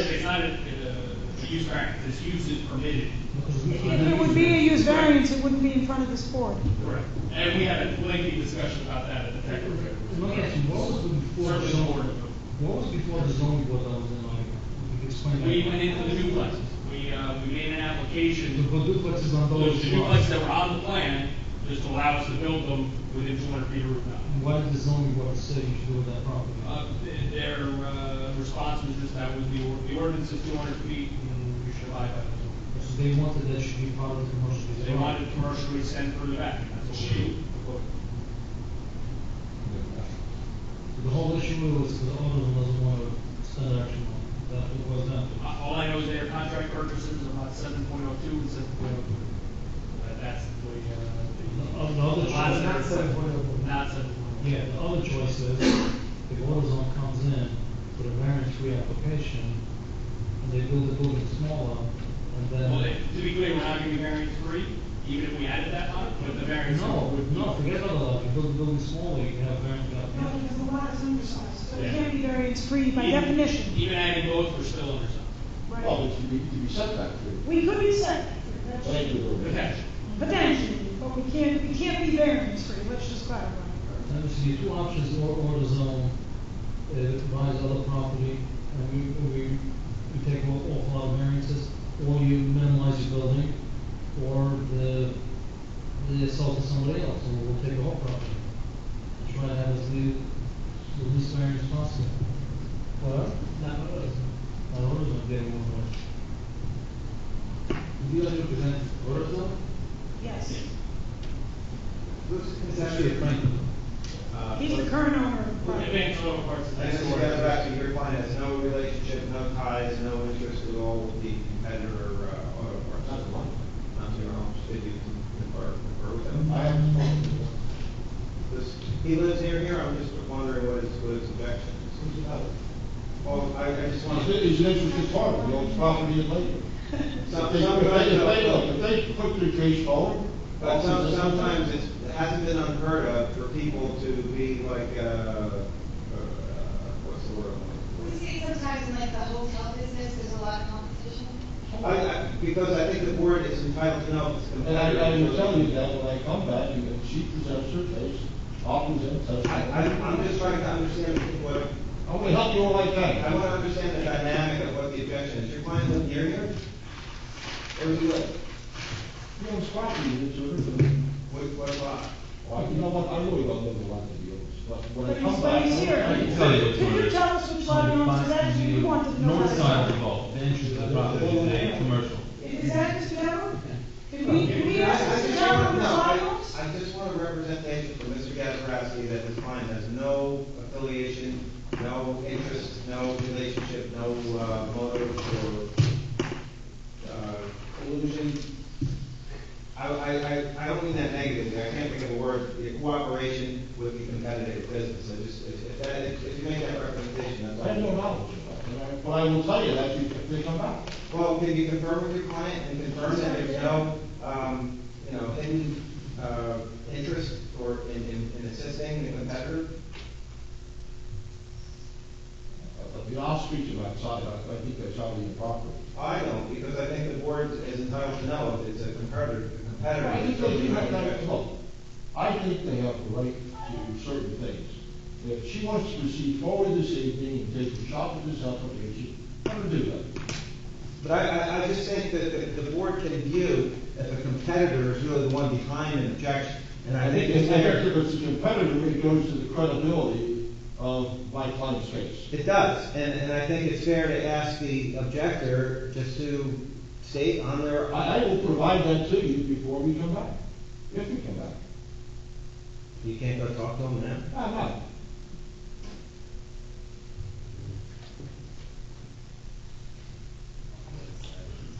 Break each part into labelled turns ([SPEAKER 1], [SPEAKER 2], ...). [SPEAKER 1] It's not a, a uh, use variance, this use is permitted.
[SPEAKER 2] If it would be a use variance, it wouldn't be in front of this board.
[SPEAKER 1] Correct. And we had a lengthy discussion about that at the tech review.
[SPEAKER 3] Let me ask you, what was the before the
[SPEAKER 1] Certainly the board,
[SPEAKER 3] zoning, what was before the zoning board that was in Oregon? You can explain that.
[SPEAKER 1] we went into the duplexes, we, uh, we made an
[SPEAKER 3] The
[SPEAKER 1] application,
[SPEAKER 3] duplex is on
[SPEAKER 1] those
[SPEAKER 3] those
[SPEAKER 1] duplexes
[SPEAKER 3] lots.
[SPEAKER 1] that were on the plan, just allow us to build them within two hundred feet of roof line.
[SPEAKER 3] Why did the zoning board say you should build that property?
[SPEAKER 1] Uh, th- their, uh, response was just that was the, or- the ordinance is two hundred feet, and you should abide by it.
[SPEAKER 3] So they wanted that should be part of the commercial
[SPEAKER 1] They
[SPEAKER 3] development.
[SPEAKER 1] wanted commercially extend further back, and that's what we.
[SPEAKER 3] The whole issue was the owner doesn't want to spend action on, it. that was that.
[SPEAKER 1] Uh, All I know is their contract purchases are about seven point oh two and seven point oh three. That's the, uh.
[SPEAKER 3] The- the other
[SPEAKER 1] Lots
[SPEAKER 3] choice-
[SPEAKER 1] of-
[SPEAKER 3] Not 7.02.
[SPEAKER 1] Not seven point oh two.
[SPEAKER 3] Yeah, the other choice is, if AutoZone comes in with a variance-free application, and they build the building smaller, and then.
[SPEAKER 1] Well, they- to be clear, we're not giving variance three, even if we added that on, but the variance.
[SPEAKER 3] No, would- no, forget about that, if you build the building smaller, you can have variance
[SPEAKER 2] No,
[SPEAKER 3] application.
[SPEAKER 2] because the lot is undersized, so it
[SPEAKER 1] Yeah.
[SPEAKER 2] can't be variance-free by
[SPEAKER 1] Even-
[SPEAKER 2] definition.
[SPEAKER 1] Even adding both, we're still under some.
[SPEAKER 2] Right.
[SPEAKER 4] Well, but you need to be set back to
[SPEAKER 2] We could be set,
[SPEAKER 4] it. Thank you.
[SPEAKER 1] Potential.
[SPEAKER 2] potentially, but we can't, we can't be variance-free, let's just clarify.
[SPEAKER 3] Let me see, two options, or AutoZone, uh, buys other property, and we, we, we take off, off lot variances, or you minimize your building, or the, they sell to somebody else, or we'll take the whole property. And Try to have as little, the least variance possible. Well, not ours, not AutoZone, they won't work. Do you like to present AutoZone?
[SPEAKER 2] Yes,
[SPEAKER 3] It's actually a Franklin.
[SPEAKER 5] Uh,
[SPEAKER 2] he's the
[SPEAKER 5] but-
[SPEAKER 2] current owner of the property.
[SPEAKER 1] Advanced auto parts is
[SPEAKER 5] I
[SPEAKER 1] next
[SPEAKER 5] guess
[SPEAKER 1] door.
[SPEAKER 5] it goes back to your client has no relationship, no ties, no interest at all with the competitor, uh, auto parts.
[SPEAKER 4] Not the one.
[SPEAKER 5] Not your own, did you confer, confer with them?
[SPEAKER 4] I am responsible.
[SPEAKER 5] This- He lives near here, I'm just wondering what his, what his objection is.
[SPEAKER 4] Who's about it?
[SPEAKER 5] Well, I, I just want
[SPEAKER 4] It's-
[SPEAKER 5] to,
[SPEAKER 4] It's interesting part of the old property in Lakewood. If
[SPEAKER 5] some,
[SPEAKER 4] they, if they, if they,
[SPEAKER 5] sometimes,
[SPEAKER 4] look, if they put their case forward.
[SPEAKER 5] but some, sometimes it's, it hasn't been unheard of for people to be like, uh, uh, what's the word? I'm looking for?
[SPEAKER 6] We see it sometimes in like the hotel business, there's a lot of competition.
[SPEAKER 5] I, I, because I think the board is entitled to know if it's
[SPEAKER 4] And I,
[SPEAKER 5] competitive.
[SPEAKER 4] I will tell you that when I come back, and if she presents her case, I'll present
[SPEAKER 5] I,
[SPEAKER 4] testimony.
[SPEAKER 5] I, I'm just trying to understand what,
[SPEAKER 4] I'm gonna help you all I
[SPEAKER 5] I
[SPEAKER 4] can.
[SPEAKER 5] want to understand the dynamic of what the objection is. Your client live near here? Where does he live?
[SPEAKER 4] You know, it's property, it's everything.
[SPEAKER 5] What, what lot?
[SPEAKER 4] Well, you know what, I really don't know a lot of deals, but when I
[SPEAKER 2] But
[SPEAKER 4] come
[SPEAKER 2] he's,
[SPEAKER 4] back.
[SPEAKER 2] but he's
[SPEAKER 4] I
[SPEAKER 2] here.
[SPEAKER 4] can tell you.
[SPEAKER 2] Could you tell us which lot it owns, because that's, we want to know.
[SPEAKER 7] North
[SPEAKER 2] that.
[SPEAKER 7] side of the vault, the entrance to the property, the commercial.
[SPEAKER 2] Is that Mr. Gallo? Can we, can we
[SPEAKER 5] I- I
[SPEAKER 2] ask Mr.
[SPEAKER 5] just
[SPEAKER 2] Gallo
[SPEAKER 5] want-
[SPEAKER 2] which
[SPEAKER 5] no,
[SPEAKER 2] lot it
[SPEAKER 5] I-
[SPEAKER 2] owns?
[SPEAKER 5] I just want a representation from Mr. Gazarovski that his client has no affiliation, no interest, no relationship, no, uh, motive or, uh, collusion. I, I, I, I don't mean that negatively, I can't think of a word, The cooperation with the competitive business, I just, if, if that, if if you make that representation, that's all.
[SPEAKER 4] I have no knowledge about it, and I- but I will tell you that if they come back.
[SPEAKER 5] Well, can you confirm with your client and confirm that there's no, um, you know, hidden, uh, interest or in, in, in assisting the competitor?
[SPEAKER 4] But, You know, I'll speak to them outside, I I think that's probably improper.
[SPEAKER 5] I don't, because I think the board is entitled to know if it's a competitor, a competitor.
[SPEAKER 4] I think they
[SPEAKER 5] that's
[SPEAKER 4] do have
[SPEAKER 5] being
[SPEAKER 4] that,
[SPEAKER 5] rejected.
[SPEAKER 4] look, I think they have the right to do certain things. If she wants to proceed forward this evening and take a shot at this application, let her do that.
[SPEAKER 5] But I, I, I just think that the, the board can view if a competitor is really the one behind an objection. And I think it's
[SPEAKER 4] fair
[SPEAKER 5] there,
[SPEAKER 4] If it's a competitor, it goes to the credibility of my client's case.
[SPEAKER 5] it does, and, and I think it's fair to ask the objector just to state on their.
[SPEAKER 4] I, I will provide that to you before we come back, if we come back.
[SPEAKER 5] You can't go talk to them now?
[SPEAKER 4] I'm not.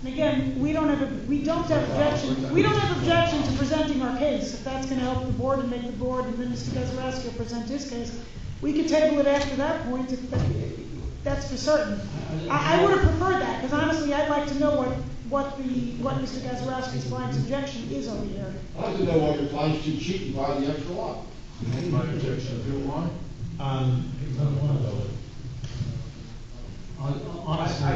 [SPEAKER 2] And again, we don't have, a- we don't have objection, we don't have objection to presenting our case, if that's gonna help the board and make the board, and then Mr. Gazarovski present his case. We could table it after that point, if that- that's for certain. I, I would have preferred that, because honestly, I'd like to know what, what the, what Mr. Gazarovski's client's objection is over here.
[SPEAKER 4] I don't know why your client's too cheap and buy the extra lot.
[SPEAKER 7] My objection, do
[SPEAKER 3] Um. Not one of those. Hon- Honestly.